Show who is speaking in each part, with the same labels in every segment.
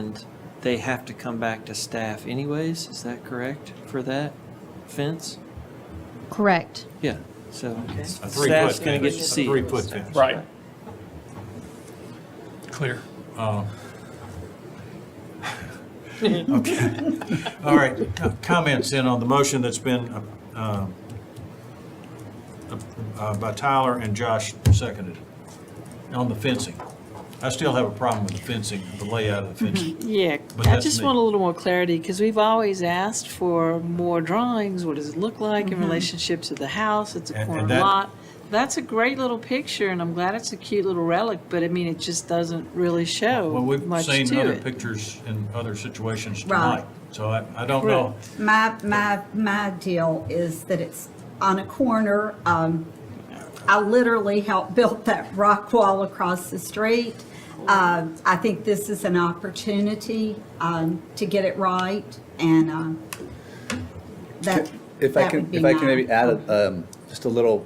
Speaker 1: And they have to come back to staff anyways, is that correct for that fence?
Speaker 2: Correct.
Speaker 1: Yeah, so
Speaker 3: A three-foot
Speaker 1: staff's gonna get to
Speaker 3: fence, a
Speaker 1: see. it.
Speaker 3: Three-foot fence.
Speaker 4: Right. Clear.
Speaker 3: Okay. All right, Co- comments in on the motion that's been uh, uh, by Tyler and Josh seconded on the fencing. I still have a problem with the fencing, the layout of the
Speaker 5: Mm-hmm.
Speaker 3: fencing.
Speaker 5: Yeah,
Speaker 3: But
Speaker 5: I
Speaker 3: that's
Speaker 5: just
Speaker 3: me.
Speaker 5: want a little more clarity, because we've always asked for more drawings, what does it look like in relationship to the house, it's a
Speaker 3: And-
Speaker 5: corner
Speaker 3: and that-
Speaker 5: lot. That's a great little picture, and I'm glad it's a cute little relic, but I mean, it just doesn't really show
Speaker 3: Well, we've
Speaker 5: much to
Speaker 3: seen other
Speaker 5: it.
Speaker 3: pictures in other situations
Speaker 6: Right.
Speaker 3: tonight, so I, I don't know.
Speaker 6: My, my, my deal is that it's on a corner. Um, I literally helped build that rock wall across the street. Uh, I think this is an opportunity, um, to get it right and, um, that,
Speaker 7: If I
Speaker 6: that
Speaker 7: can,
Speaker 6: would be
Speaker 7: if I can
Speaker 6: my-
Speaker 7: maybe add um, just a little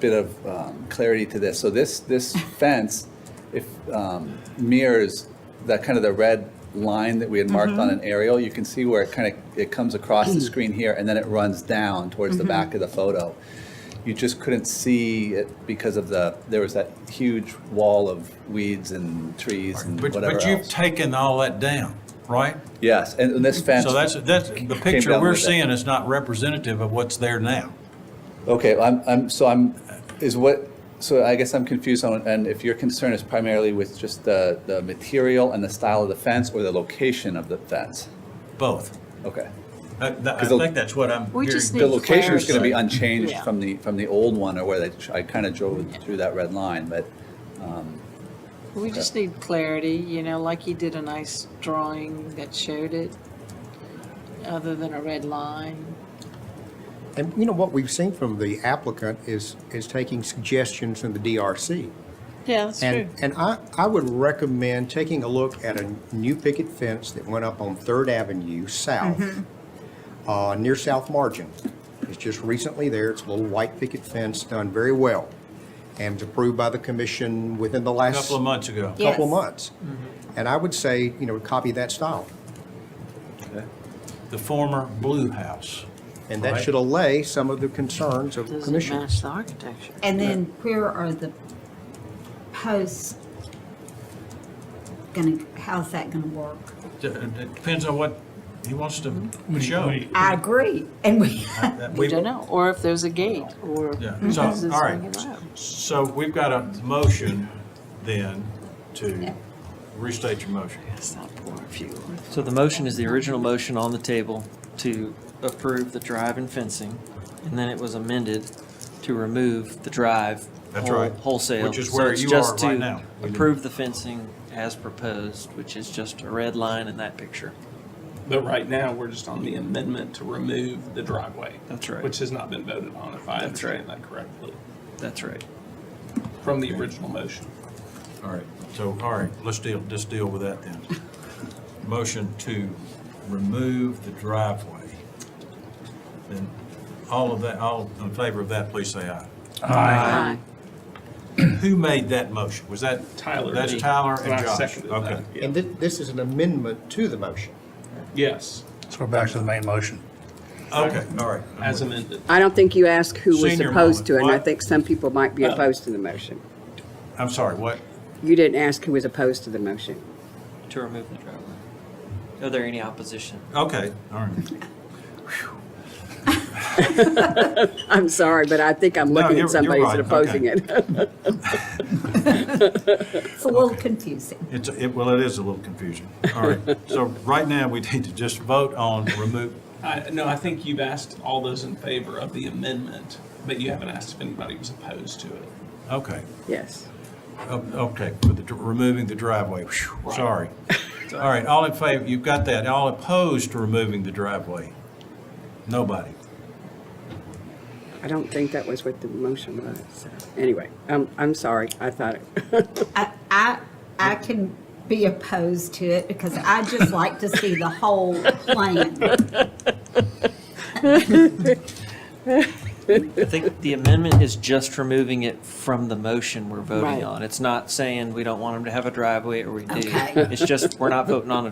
Speaker 7: bit of um, clarity to this. So this, this fence, if um, mirrors that kind of the red line that we had marked
Speaker 6: Mm-hmm.
Speaker 7: on an aerial, you can see where it kind of, it comes across the
Speaker 6: Mm.
Speaker 7: screen here and then it runs down towards the
Speaker 6: Mm-hmm.
Speaker 7: back of the photo. You just couldn't see it because of the, there was that huge wall of weeds and trees and
Speaker 3: But,
Speaker 7: whatever
Speaker 3: but you've
Speaker 7: else.
Speaker 3: taken all that down, right?
Speaker 7: Yes, and and this
Speaker 6: Mm-hmm.
Speaker 7: fence.
Speaker 3: So that's, that's, the picture
Speaker 7: down
Speaker 3: we're
Speaker 7: with it.
Speaker 3: seeing is not representative of what's there now.
Speaker 7: Okay, I'm, I'm, so I'm, is what, so I guess I'm confused on, and if your concern is primarily with just the, the material and the style of the fence or the location of the fence?
Speaker 3: Both.
Speaker 7: Okay.
Speaker 3: I, I
Speaker 7: the-
Speaker 3: think that's what I'm
Speaker 5: We
Speaker 3: hearing.
Speaker 5: just
Speaker 7: The
Speaker 5: Need
Speaker 7: location is gonna be
Speaker 5: clarity.
Speaker 7: unchanged
Speaker 5: Yeah.
Speaker 7: from the, from the old one or where they, I kinda drove through that red line, but,
Speaker 5: We just need clarity, you know, like he did a nice drawing that showed it, other than a red line.
Speaker 8: And you know, what we've seen from the applicant is, is taking suggestions from the DRC.
Speaker 5: Yeah, that's true.
Speaker 8: And, and I, I would recommend taking a look at a new picket fence that went up on Third Avenue South,
Speaker 5: Mm-hmm.
Speaker 8: uh, near South Margin. It's just recently there, it's a little white picket fence, done very well, and was approved by the commission within
Speaker 3: A
Speaker 8: the last
Speaker 3: couple of months Mm-hmm. ago.
Speaker 6: Yeah.
Speaker 8: couple
Speaker 6: Yes.
Speaker 8: months. And I would say, you know, copy that style.
Speaker 3: The former Blue House.
Speaker 8: And that
Speaker 3: Right.
Speaker 8: should allay some of the concerns of the
Speaker 5: Doesn't
Speaker 8: commission.
Speaker 5: match the architecture.
Speaker 6: And then where are the posts gonna, how's that gonna work?
Speaker 3: D- uh, It depends on what he wants to show.
Speaker 6: I agree, and we,
Speaker 3: That
Speaker 5: Mm-hmm. We don't know, or if there's a gate, or.
Speaker 3: Yeah,
Speaker 5: is
Speaker 3: so,
Speaker 5: this
Speaker 3: all
Speaker 5: thing
Speaker 3: right.
Speaker 5: allowed?
Speaker 3: So we've got a motion then to restate your motion.
Speaker 5: It's not poor fuel.
Speaker 1: So the motion is the original motion on the table to approve the drive and fencing, and then it was amended to remove the drive.
Speaker 3: That's
Speaker 1: whole-
Speaker 3: right.
Speaker 1: Wholesale.
Speaker 3: Which is
Speaker 1: So
Speaker 3: where
Speaker 1: it's
Speaker 3: you
Speaker 1: just
Speaker 3: are right
Speaker 1: to
Speaker 3: now.
Speaker 1: Approve the fencing as proposed, which is just a red line in that picture.
Speaker 4: But right now, we're just on the amendment to remove the driveway.
Speaker 1: That's right.
Speaker 4: Which has not been voted on, if I
Speaker 1: That's right.
Speaker 4: understand that correctly,
Speaker 1: That's right.
Speaker 4: from the original motion.
Speaker 3: All right, so, all right, let's deal, just deal with that then. Motion to remove the driveway. Then all of that, all in favor of that, please say aye.
Speaker 4: Aye.
Speaker 3: Who made that motion? Was that?
Speaker 4: Tyler
Speaker 3: That's
Speaker 4: did.
Speaker 3: Tyler
Speaker 4: And I
Speaker 3: and Josh.
Speaker 4: seconded that.
Speaker 3: Okay.
Speaker 8: And thi- this is an amendment to the motion.
Speaker 4: Yes,
Speaker 9: So we're back to the main motion.
Speaker 3: Okay, all right.
Speaker 4: as amended.
Speaker 10: I don't think you asked who was
Speaker 3: Senior
Speaker 10: opposed to it, and I
Speaker 3: moment.
Speaker 10: think some people might be opposed to the motion.
Speaker 3: I'm sorry, what?
Speaker 10: You didn't ask who was opposed to the motion.
Speaker 1: To remove the driveway. Are there any opposition?
Speaker 3: Okay, all right.
Speaker 10: I'm sorry, but I think I'm looking
Speaker 3: you're- you're
Speaker 10: at somebody
Speaker 3: right.
Speaker 10: who's opposing
Speaker 3: Okay.
Speaker 10: it.
Speaker 6: it's a little confusing.
Speaker 3: It's, it, well, it is a little confusing. All right, so right now, we need to just vote on remove,
Speaker 4: I, no, I think you've asked all those in favor of the amendment, but you haven't asked if anybody was opposed to it.
Speaker 3: okay,
Speaker 10: Yes.
Speaker 3: o- Oh, okay, with the, dr- removing the driveway, Phew, sorry. All right, all in favor, you've got that, all opposed to removing the driveway? Nobody.
Speaker 10: I don't think that was what the motion was. so. Anyway, I'm, I'm sorry. I thought, it-
Speaker 6: I, I, I can be opposed to it because I just like to see the whole plan.
Speaker 1: I think the amendment is just removing it from the motion we're voting
Speaker 10: Right.
Speaker 1: on. It's not saying we don't want them to have a driveway or we do.
Speaker 6: Okay.
Speaker 1: It's just, we're not voting on a